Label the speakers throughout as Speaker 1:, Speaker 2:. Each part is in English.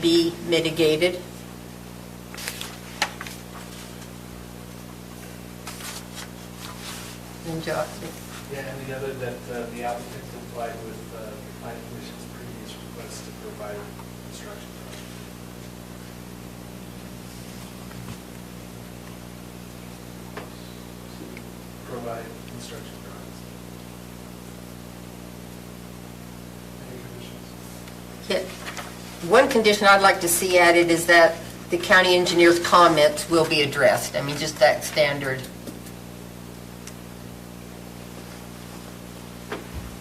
Speaker 1: be mitigated. And Jo-
Speaker 2: Yeah, and the other, that uh, the applicant complied with uh, the planning commission's previous request to provide construction. drawings. Provide construction drawings. Any conditions?
Speaker 1: yeah. One condition I'd like to see added is that the county engineer's comments will be addressed. I mean, just that standard.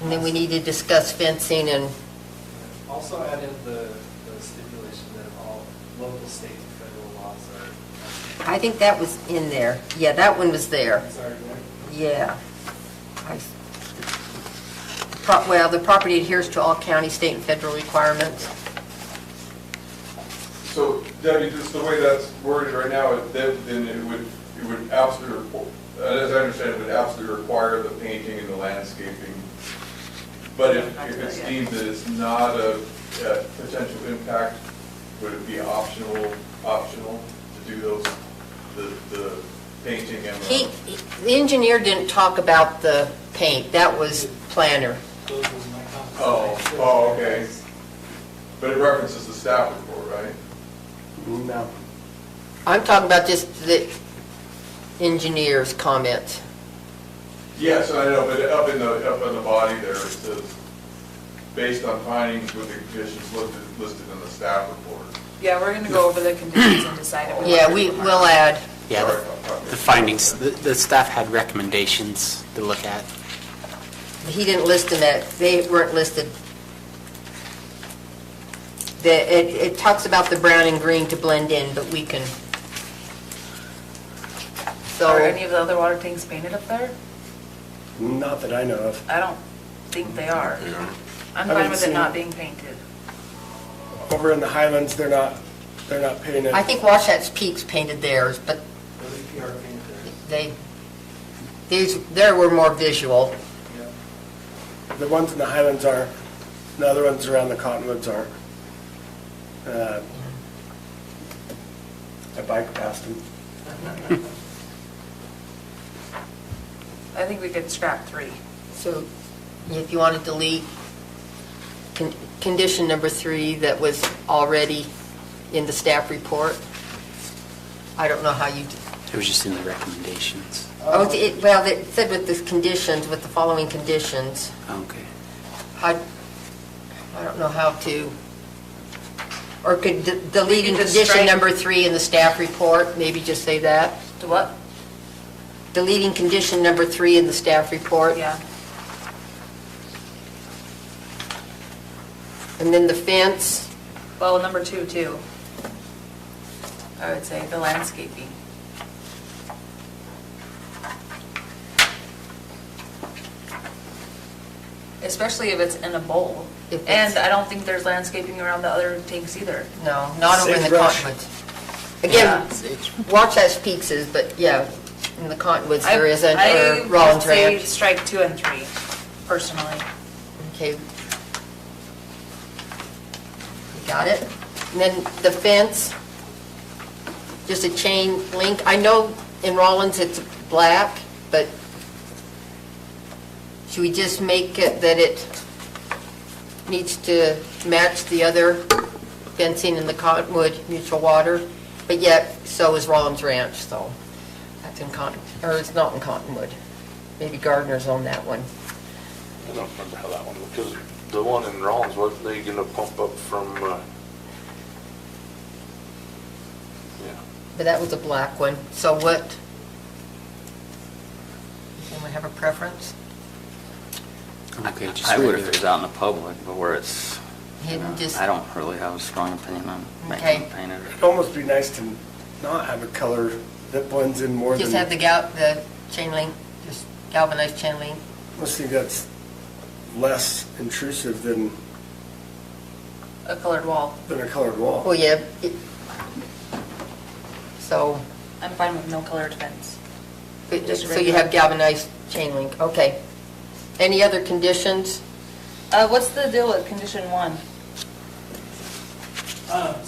Speaker 1: And then we need to discuss fencing and,
Speaker 2: Also add in the the stipulation that all local, state, and federal laws are,
Speaker 1: I think that was in there. Yeah, that one was there.
Speaker 2: sorry, Mary?
Speaker 1: Yeah. I s- pro- Well, the property adheres to all county, state, and federal requirements.
Speaker 3: So Debbie, just the way that's worded right now, it- that- then it would, it would absolutely, requ- uh, as I understand, it would absolutely require the painting and the landscaping. But if if it's deemed that it's not a a potential impact, would it be optional, optional to do those, the, the painting and
Speaker 1: He,
Speaker 3: the?
Speaker 1: the engineer didn't talk about the paint, that was planner.
Speaker 2: Those were my comments.
Speaker 3: Oh, oh, okay. But it references the staff report, right?
Speaker 4: No.
Speaker 1: I'm talking about just the engineer's comments.
Speaker 3: Yes, I know, but up in the, up in the body there, it says, based on findings with the conditions listed, listed in the staff report.
Speaker 5: Yeah, we're going to go over the conditions and decide if we.
Speaker 1: Yeah, we will add,
Speaker 4: Yeah,
Speaker 3: Sorry,
Speaker 4: the-
Speaker 3: I'm talking-
Speaker 4: the findings, the- the staff had recommendations to look at.
Speaker 1: he didn't list them, at- they weren't listed. The, it, it talks about the brown and green to blend in, but we can. So.
Speaker 5: Are any of the other water tanks painted up there?
Speaker 6: Not that I know of.
Speaker 5: I don't think they are. I'm
Speaker 6: I
Speaker 5: fine
Speaker 6: haven't
Speaker 5: with it
Speaker 6: seen
Speaker 5: not
Speaker 6: it.
Speaker 5: being painted.
Speaker 6: Over in the Highlands, they're not, they're not painted.
Speaker 1: I think Wasatch Peaks painted theirs, but
Speaker 2: The EPR painted there.
Speaker 1: they, these, there were more visual.
Speaker 2: Yeah.
Speaker 6: The ones in the Highlands are, the other ones around the Cottonwoods are. Uh, I bike past them.
Speaker 5: I think we could scrap three.
Speaker 1: So if you want to delete con- condition number three that was already in the staff report, I don't know how you, d-
Speaker 4: It was just in the recommendations.
Speaker 1: oh, it, well, it said with the conditions, with the following conditions.
Speaker 4: Okay.
Speaker 1: I, I don't know how to, or could d- delete
Speaker 5: You could
Speaker 1: condition
Speaker 5: strike-
Speaker 1: number three in the staff report, maybe just say that.
Speaker 5: To what?
Speaker 1: Deleting condition number three in the staff report.
Speaker 5: Yeah.
Speaker 1: And then the fence,
Speaker 5: Well, number two, too. I would say the landscaping. Especially if it's in a bowl.
Speaker 1: If it's-
Speaker 5: And I don't think there's landscaping around the other tanks either.
Speaker 1: no, not over in the
Speaker 6: Sagebrush.
Speaker 1: cottonwoods. Again,
Speaker 5: Yeah.
Speaker 1: watch as peaks is, but yeah, in the cottonwoods
Speaker 5: I-
Speaker 1: there isn't,
Speaker 5: I
Speaker 1: or Rollins
Speaker 5: would say
Speaker 1: Ranch.
Speaker 5: Strike two and three, personally.
Speaker 1: Okay. You Got it? And then the fence, just a chain link. I know in Rollins it's black, but should we just make it that it needs to match the other fencing in the Cottonwood Mutual Water? But yet, so is Rollins Ranch, so that's in Cotton, or it's not in Cottonwood. Maybe Gardner's on that one.
Speaker 7: I don't remember how that one, because the one in Rollins, wasn't they gonna pump up from, uh, yeah.
Speaker 1: But that was a black one, so what? Anyone have a preference?
Speaker 4: Okay, just
Speaker 8: I
Speaker 4: leave
Speaker 8: would
Speaker 4: it.
Speaker 8: if it was out in the public, but where it's, you
Speaker 1: Hidden
Speaker 8: know,
Speaker 1: just-
Speaker 8: I don't really have a strong opinion on
Speaker 1: Okay.
Speaker 8: making them painted.
Speaker 6: It'd almost be nice to not have a color that blends in more than.
Speaker 1: Just have the gal, the chain link, just galvanized chain link?
Speaker 6: Let's see, that's less intrusive than,
Speaker 5: A colored wall.
Speaker 6: than a colored wall.
Speaker 1: Well, yeah. it- So,
Speaker 5: I'm fine with no colored fence.
Speaker 1: but-
Speaker 5: Just
Speaker 1: so you have galvanized chain link, okay. Any other conditions?
Speaker 5: Uh, what's the deal with condition one?
Speaker 2: Uh,